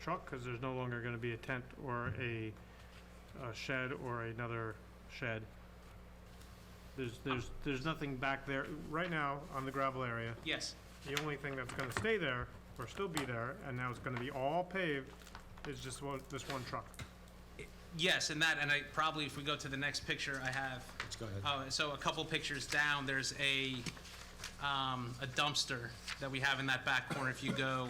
truck, because there's no longer going to be a tent or a a shed or another shed. There's, there's, there's nothing back there. Right now, on the gravel area, Yes, the only thing that's going to stay there or still be there, and now it's going to be all paved, is just one, this one truck. yes, and that, and I probably, if we go to the next picture, I have, Let's go ahead. oh, so a couple pictures down, there's a, um, a dumpster that we have in that back corner. If you go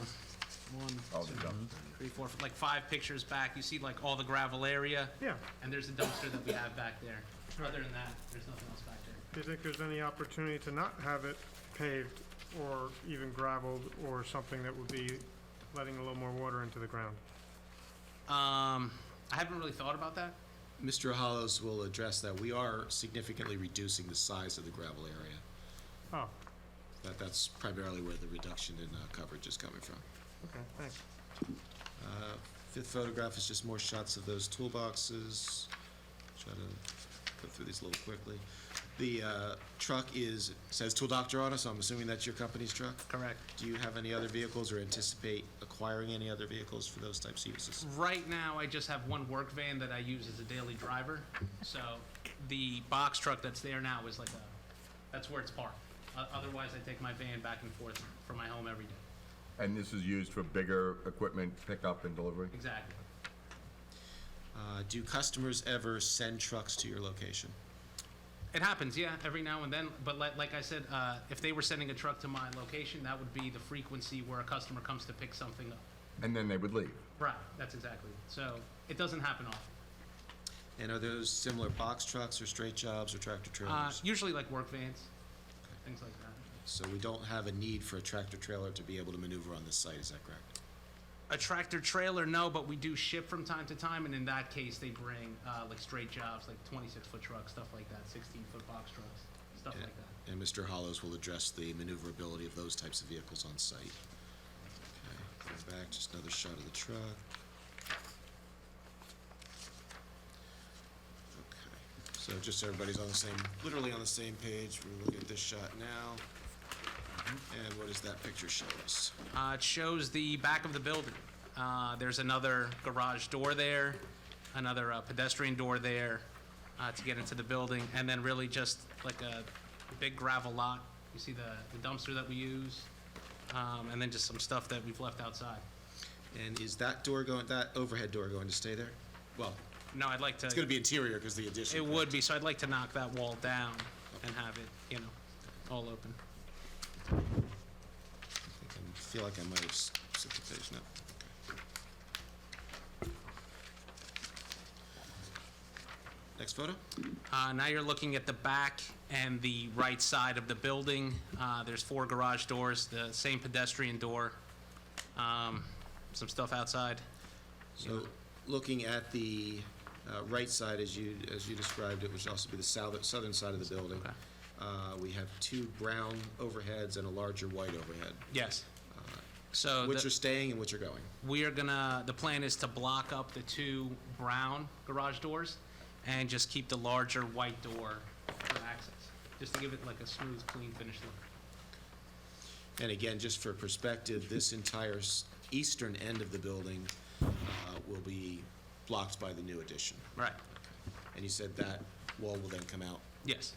one, two, three, four, like five pictures back, you see like all the gravel area, Yeah. and there's a dumpster that we have back there. Other than that, there's nothing else back there. Do you think there's any opportunity to not have it paved or even gravelled or something that would be letting a little more water into the ground? Um, I haven't really thought about that. Mr. Hollows will address that. We are significantly reducing the size of the gravel area. Oh, That, that's primarily where the reduction in uh, coverage is coming from. okay, thanks. Uh, Fifth photograph is just more shots of those toolboxes. Try to go through these a little quickly. The uh, truck is, says Tool Doctor on it, so I'm assuming that's your company's truck? Correct. Do you have any other vehicles or anticipate acquiring any other vehicles for those types of uses? Right now, I just have one work van that I use as a daily driver. So the box truck that's there now is like a, that's where it's parked. O- Otherwise, I take my van back and forth from my home every day. And this is used for bigger equipment pickup and delivery? Exactly. Uh, Do customers ever send trucks to your location? It happens, yeah, every now and then. But like, like I said, uh, if they were sending a truck to my location, that would be the frequency where a customer comes to pick something up. And then they would leave? Right, that's exactly. it. So it doesn't happen often. And are those similar box trucks or straight jobs or tractor Uh, trailers? usually like work vans, things like that. So we don't have a need for a tractor trailer to be able to maneuver on this site, is that correct? a tractor trailer, no, but we do ship from time to time, and in that case, they bring uh, like straight jobs, like 26 foot trucks, stuff like that, 16 foot box trucks, stuff like that. And Mr. Hollows will address the maneuverability of those types of vehicles on site. Okay, go back, just another shot of the truck. Okay, so just so everybody's on the same, literally on the same page, we're looking at this shot now. And what does that picture show us? Uh, it shows the back of the building. Uh, there's another garage door there, another uh, pedestrian door there uh, to get into the building, and then really just like a big gravel lot. You see the, the dumpster that we use, um, and then just some stuff that we've left outside. And is that door going, that overhead door going to stay there? Well, No, I'd like to. it's gonna be interior because the addition. It correct? would be, so I'd like to knock that wall down and have it, you know, all open. I think I feel like I might have s- set the page now. Next photo? Uh, now you're looking at the back and the right side of the building. Uh, there's four garage doors, the same pedestrian door, um, some stuff outside. So, looking at the uh, right side, as you, as you described it, which would also be the south- southern side of the building, Okay. uh, we have two brown overheads and a larger white overhead, Yes. So which the- are staying and which are going. we are gonna, the plan is to block up the two brown garage doors and just keep the larger white door for access, just to give it like a smooth, clean finish look. And again, just for perspective, this entire s- eastern end of the building uh, will be blocked by the new addition. Right, And you said that wall will then come out? yes.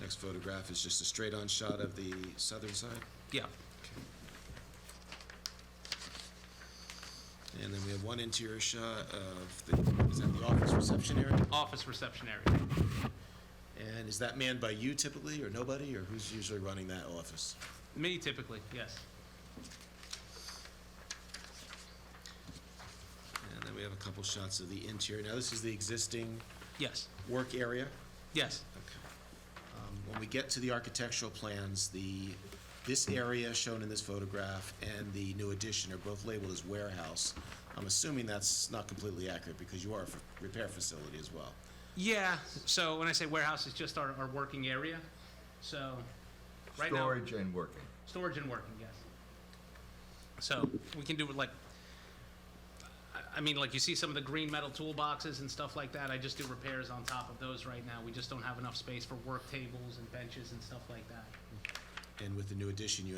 Next photograph is just a straight-on shot of the southern side. Yeah, And then we have one interior shot of the, is that the office reception area? office reception area. And is that manned by you typically, or nobody, or who's usually running that office? Me typically, yes. And then we have a couple shots of the interior. Now, this is the existing Yes, work area. yes. Um, When we get to the architectural plans, the, this area shown in this photograph and the new addition are both labeled as warehouse. I'm assuming that's not completely accurate, because you are a f- repair facility as well. Yeah, so when I say warehouse, it's just our, our working area. So, right now, Storage and working. storage and working, yes. So, we can do it like, I- I mean, like you see some of the green metal toolboxes and stuff like that. I just do repairs on top of those right now. We just don't have enough space for work tables and benches and stuff like that. And with the new addition, you